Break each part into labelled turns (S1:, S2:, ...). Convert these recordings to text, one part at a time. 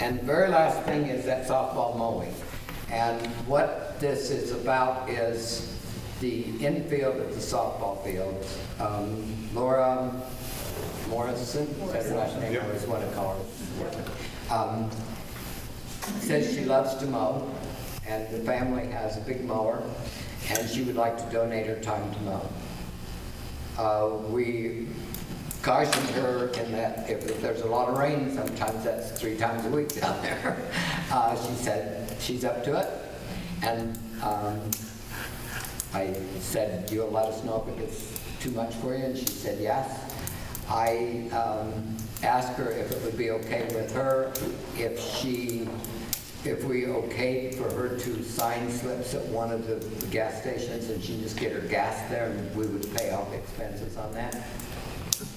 S1: And the very last thing is that softball mowing. And what this is about is the infield of the softball field. Um, Laura Morrison, is that her last name? I always want to call her. Um, says she loves to mow, and the family has a big mower, and she would like to donate her time to mow. Uh, We cautioned her in that if if there's a lot of rain, sometimes that's three times a week down there. Uh, She said she's up to it, and um, I said, you'll let us know if it's too much for you, and she said yes. I um, asked her if it would be okay with her if she, if we okayed for her to sign slips at one of the gas stations, and she just get her gas there, and we would pay off expenses on that.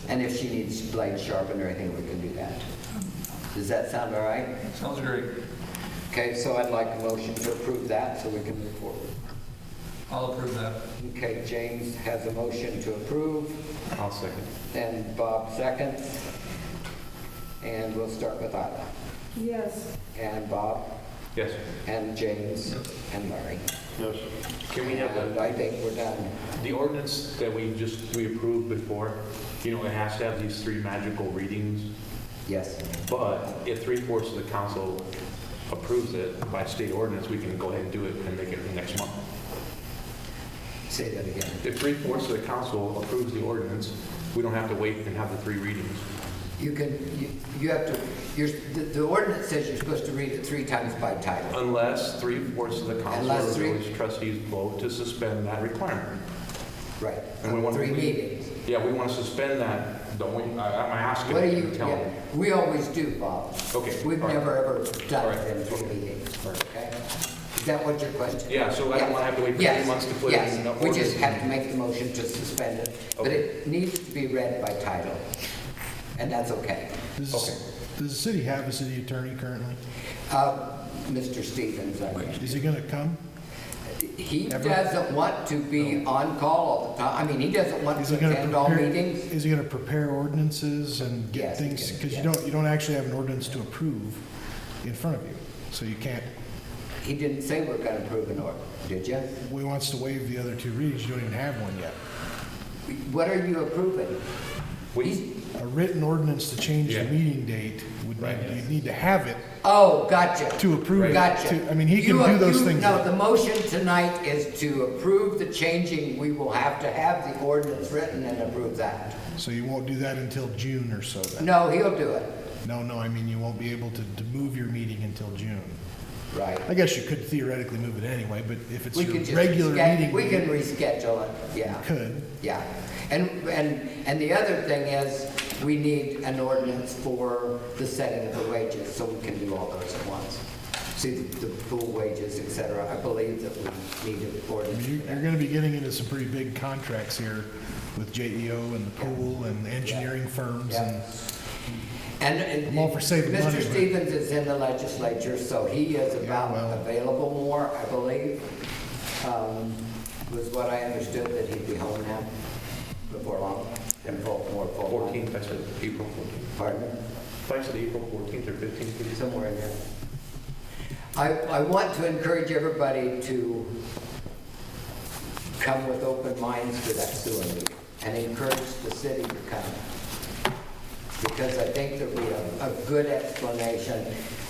S1: And if she needs blade sharpened or anything, we can do that. Does that sound all right?
S2: Sounds great.
S1: Okay, so I'd like a motion to approve that, so we can move forward.
S2: I'll approve that.
S1: Okay, James has a motion to approve,
S3: I'll second.
S1: and Bob seconds. And we'll start with Isla,
S4: Yes.
S1: and Bob,
S3: Yes.
S1: and James, and Larry.
S3: Yes. Can we have
S1: And
S3: the,
S1: I think we're done.
S3: the ordinance that we just, we approved before, you know, it has to have these three magical readings,
S1: Yes.
S3: but if three fourths of the council approves it by state ordinance, we can go ahead and do it and make it next month.
S1: Say that again.
S3: If three fourths of the council approves the ordinance, we don't have to wait and have the three readings.
S1: You can, you- you have to, you're, the the ordinance says you're supposed to read it three times by title.
S3: Unless three fourths of the council or
S1: Unless three-
S3: village trustees vote to suspend that requirement.
S1: Right.
S3: And we want to
S1: Three
S3: read-
S1: meetings.
S3: Yeah, we want to suspend that, don't we? I- I'm asking.
S1: What do you,
S3: Tell me.
S1: yeah, we always do, Bob.
S3: Okay,
S1: We've
S3: all right.
S1: never, ever
S3: All
S1: done
S3: right,
S1: them three meetings, okay? Is that what your question?
S3: Yeah, so I don't want to have to wait for
S1: Yes,
S3: three months to put it in the
S1: yes, we
S3: ordinance.
S1: just have to make the motion to suspend it, but
S3: Okay.
S1: it needs to be read by title, and that's okay.
S5: Does,
S3: Okay.
S5: does the city have a city attorney currently?
S1: Uh, Mr. Stevens, I mean,
S5: Is he going to come?
S1: he
S5: Never-
S1: doesn't want to be on call all the time, I mean, he doesn't want
S5: Is
S1: to
S5: he going to
S1: attend all
S5: prepare?
S1: meetings.
S5: Is he going to prepare ordinances and get
S1: Yes, he
S5: things?
S1: can,
S5: Because
S1: yes.
S5: you don't, you don't actually have an ordinance to approve in front of you, so you can't.
S1: He didn't say we're gonna approve an order, did you?
S5: We wants to waive the other two readings. You don't even have one yet.
S1: What are you approving? He's-
S3: We,
S5: A written ordinance to change the
S3: Yeah.
S5: meeting date would
S3: Right.
S5: need, you need to have it.
S1: Oh, gotcha.
S5: To approve it,
S1: Gotcha.
S5: to- I mean, he can
S1: You-
S5: do those
S1: you-
S5: things.
S1: No, the motion tonight is to approve the changing. We will have to have the ordinance written and approve that.
S5: So you won't do that until June or so then.
S1: No, he'll do it.
S5: No, no, I mean, you won't be able to, to move your meeting until June.
S1: Right.
S5: I guess you could theoretically move it anyway, but if it's
S1: We
S5: your
S1: can just.
S5: regular
S1: resched-
S5: meeting.
S1: We
S5: date-
S1: can reschedule it, yeah.
S5: Could.
S1: Yeah. And, and, and the other thing is, we need an ordinance for the setting of the wages, so we can do all those at once. See, the the pool wages, et cetera. I believe that we need an
S5: I
S1: ordinance.
S5: mean,
S1: for
S5: You're,
S1: that.
S5: you're gonna be getting into some pretty big contracts here with JEO and the pool and the engineering firms and,
S1: And, and
S5: I'm all for saving money,
S1: Mr.
S5: but-
S1: Stevens is in the legislature, so he is about
S5: well-
S1: available more, I believe. Um, Was what I understood, that he'd be home now before long, and full, more full.
S3: 14th, I said, April 14th.
S1: Pardon?
S3: I said April 14th or 15th. did you say?
S1: Somewhere in there. I, I want to encourage everybody to come with open minds to that sewer meeting and encourage the city to come. Because I think there'll be a, a good explanation.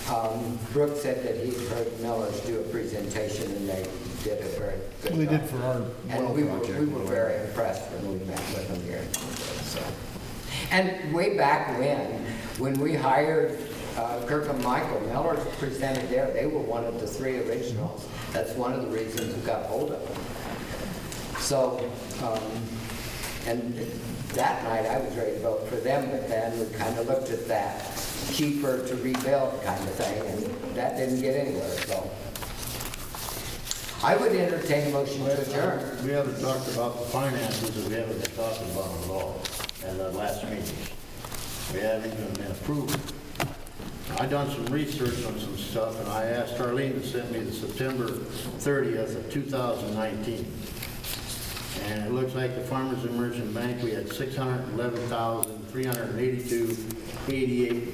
S1: Um, Brooke said that he heard Miller's do a presentation and they did a very good job.
S5: well, they did for our well
S1: And we were,
S5: project.
S1: we were very impressed when we met with them here. so. And way back when, when we hired uh, Kirk and Michael, Miller presented there, they were one of the three originals. That's one of the reasons we got hold of them. So, um, and that night, I was ready to vote for them, but then we kind of looked at that cheaper to rebuild kind of thing, and that didn't get anywhere, so. I would entertain a motion to adjourn.
S6: We haven't talked about the finances that we haven't been talking about at all at our last meetings. We haven't even been approved. I done some research on some stuff and I asked Arlene to send me the September 30th of 2019. And it looks like the Farmers and Merchant Bank, we had 611,382.88